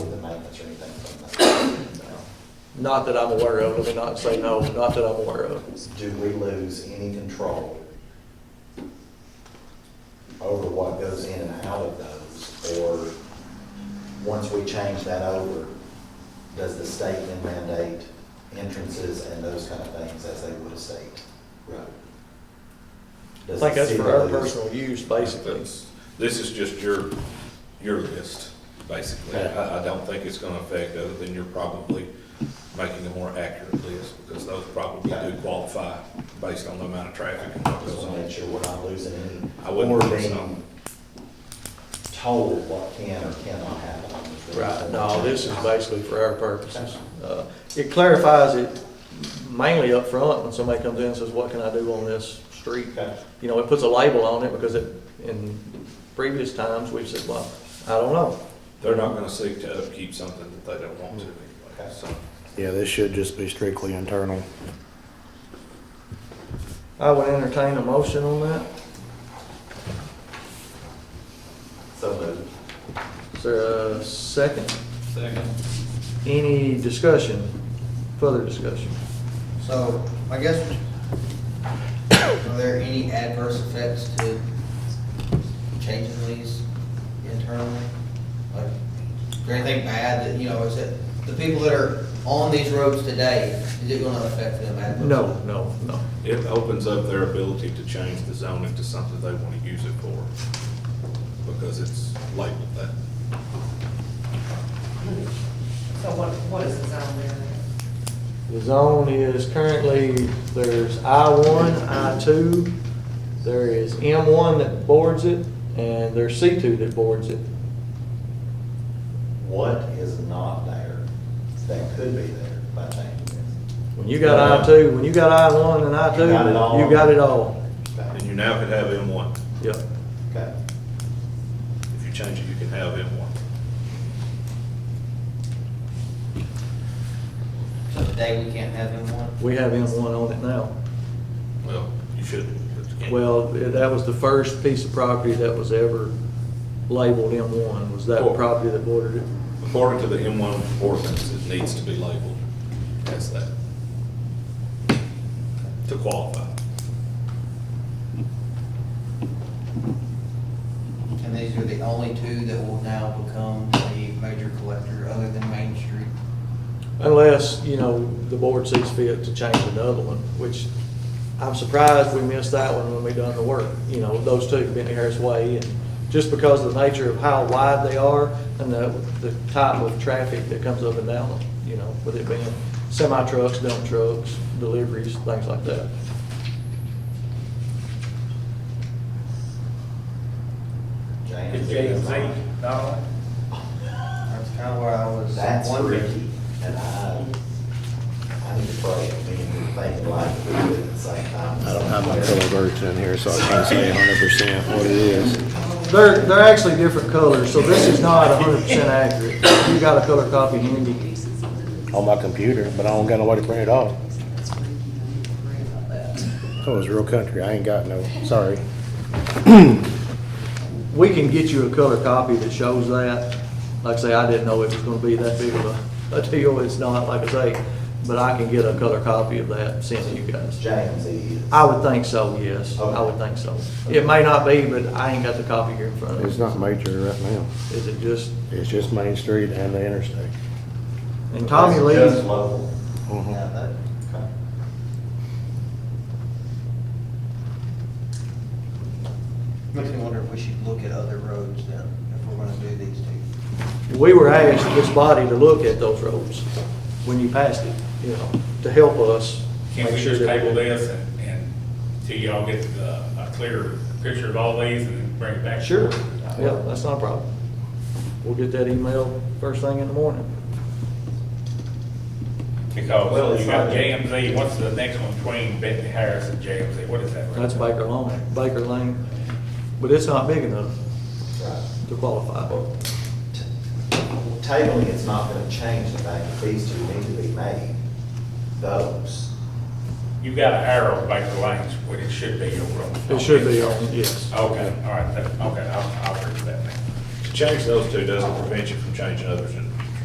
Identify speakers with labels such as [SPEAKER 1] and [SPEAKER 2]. [SPEAKER 1] Not that I'm aware of, let me not say no, not that I'm aware of.
[SPEAKER 2] Do we lose any control over what goes in and out of those? Or, once we change that over, does the state then mandate entrances and those kind of things as they would a state road?
[SPEAKER 1] I
[SPEAKER 2] Does
[SPEAKER 1] think
[SPEAKER 2] the
[SPEAKER 1] that's
[SPEAKER 2] city
[SPEAKER 1] for our
[SPEAKER 2] lose-
[SPEAKER 1] personal use, basically.
[SPEAKER 3] That's- This is just your, your list, basically. I, I don't think it's gonna affect, other than you're probably making a more accurate list, because those probably do qualify based on the amount of traffic and what
[SPEAKER 2] Just
[SPEAKER 3] goes
[SPEAKER 2] want to make
[SPEAKER 3] on.
[SPEAKER 2] sure we're not losing any.
[SPEAKER 3] I wouldn't
[SPEAKER 2] or
[SPEAKER 3] think
[SPEAKER 2] being
[SPEAKER 3] so.
[SPEAKER 2] Told what can or cannot happen. on this road.
[SPEAKER 1] Right, no, this is basically for our purposes. Uh, It clarifies it mainly up front when somebody comes in and says, what can I do on this street?
[SPEAKER 2] Okay.
[SPEAKER 1] You know, it puts a label on it because it, in previous times, we've said, well, I don't know.
[SPEAKER 3] They're not gonna seek to upkeep something that they don't want to anyway, so.
[SPEAKER 4] Yeah, this should just be strictly internal.
[SPEAKER 1] I would entertain a motion on that.
[SPEAKER 2] So moved.
[SPEAKER 1] Is there a second?
[SPEAKER 3] Second.
[SPEAKER 1] Any discussion, further discussion?
[SPEAKER 5] So, I guess, are there any adverse effects to changing these internally? Like, is there anything bad that, you know, is it, the people that are on these roads today, is it gonna affect them adversely?
[SPEAKER 1] No, no, no.
[SPEAKER 3] It opens up their ability to change the zoning to something they wanna use it for, because it's labeled that.
[SPEAKER 6] So what, what is the zone there?
[SPEAKER 1] The zone is currently, there's I one, I two, there is M one that boards it, and there's C two that boards it.
[SPEAKER 2] What is not there that could be there by changing this?
[SPEAKER 1] When you got I two, when you got I one and I two,
[SPEAKER 2] You got it all.
[SPEAKER 1] you got it all.
[SPEAKER 3] And you now could have M one.
[SPEAKER 1] Yep.
[SPEAKER 2] Okay.
[SPEAKER 3] If you change it, you can have M one.
[SPEAKER 5] So today, we can't have them one?
[SPEAKER 1] We have M one on it now.
[SPEAKER 3] Well, you shouldn't. but you can.
[SPEAKER 1] Well, that was the first piece of property that was ever labeled M one, was that
[SPEAKER 3] Cool.
[SPEAKER 1] property that bordered it.
[SPEAKER 3] According to the M1 ordinance, it needs to be labeled as that to qualify.
[SPEAKER 5] And these are the only two that will now become the major collector, other than Main Street?
[SPEAKER 1] Unless, you know, the board sees fit to change another one, which I'm surprised we missed that one when we done the work. You know, those two, Bentley Harris Way, and just because of the nature of how wide they are and the, the type of traffic that comes up and down them, you know, with it being semi trucks, dump trucks, deliveries, things like that.
[SPEAKER 2] James?
[SPEAKER 5] That's kinda where I was
[SPEAKER 2] That's
[SPEAKER 5] wondering.
[SPEAKER 2] tricky, and I, I need to pray, I mean, think like we do at the same time.
[SPEAKER 4] I don't have my color version in here, so I can't say hundred percent what it is.
[SPEAKER 1] They're, they're actually different colors, so this is not hundred percent accurate. You got a color copy handy.
[SPEAKER 4] On my computer, but I don't got no way to print it off. That was real country. I ain't got no, sorry.
[SPEAKER 1] We can get you a color copy that shows that. Like I say, I didn't know it was gonna be that big of a, a deal, it's not, like I say, but I can get a color copy of that sent to you guys.
[SPEAKER 2] James is.
[SPEAKER 1] I would think so, yes, I would think so. It may not be, but I ain't got the copy here in front of
[SPEAKER 4] It's
[SPEAKER 1] me.
[SPEAKER 4] not major right now.
[SPEAKER 1] Is it just,
[SPEAKER 4] It's just Main Street and the interstate.
[SPEAKER 1] and Tommy
[SPEAKER 2] It's
[SPEAKER 1] Lee,
[SPEAKER 2] Just local.
[SPEAKER 4] Mhm.
[SPEAKER 2] Yeah, that, okay.
[SPEAKER 5] Makes me wonder if we should look at other roads then, if we're gonna do these two.
[SPEAKER 1] we were asked, this body, to look at those roads when you passed it, you know, to help us.
[SPEAKER 7] Can
[SPEAKER 1] make
[SPEAKER 7] we
[SPEAKER 1] sure
[SPEAKER 7] just
[SPEAKER 1] that
[SPEAKER 7] table this and, and till y'all get uh, a clear picture of all these and then bring it back?
[SPEAKER 1] Sure, yeah, that's not a problem. We'll get that email first thing in the morning.
[SPEAKER 2] Well,
[SPEAKER 7] Because
[SPEAKER 2] it's
[SPEAKER 7] you got
[SPEAKER 2] not-
[SPEAKER 7] JMZ, what's the next one between Bentley Harris and JMZ? What is that? right
[SPEAKER 1] That's
[SPEAKER 7] there?
[SPEAKER 1] Baker Lane, Baker Lane, but it's not big enough
[SPEAKER 2] Right.
[SPEAKER 1] to qualify.
[SPEAKER 2] T- Tabling is not gonna change the fact that these two need to be made, those.
[SPEAKER 7] You got an arrow back the lanes, where it should be over on.
[SPEAKER 1] It should be on, yes.
[SPEAKER 7] Okay, all right, that- okay, I'll, I'll agree with that now.
[SPEAKER 3] To change those two doesn't prevent you from changing others in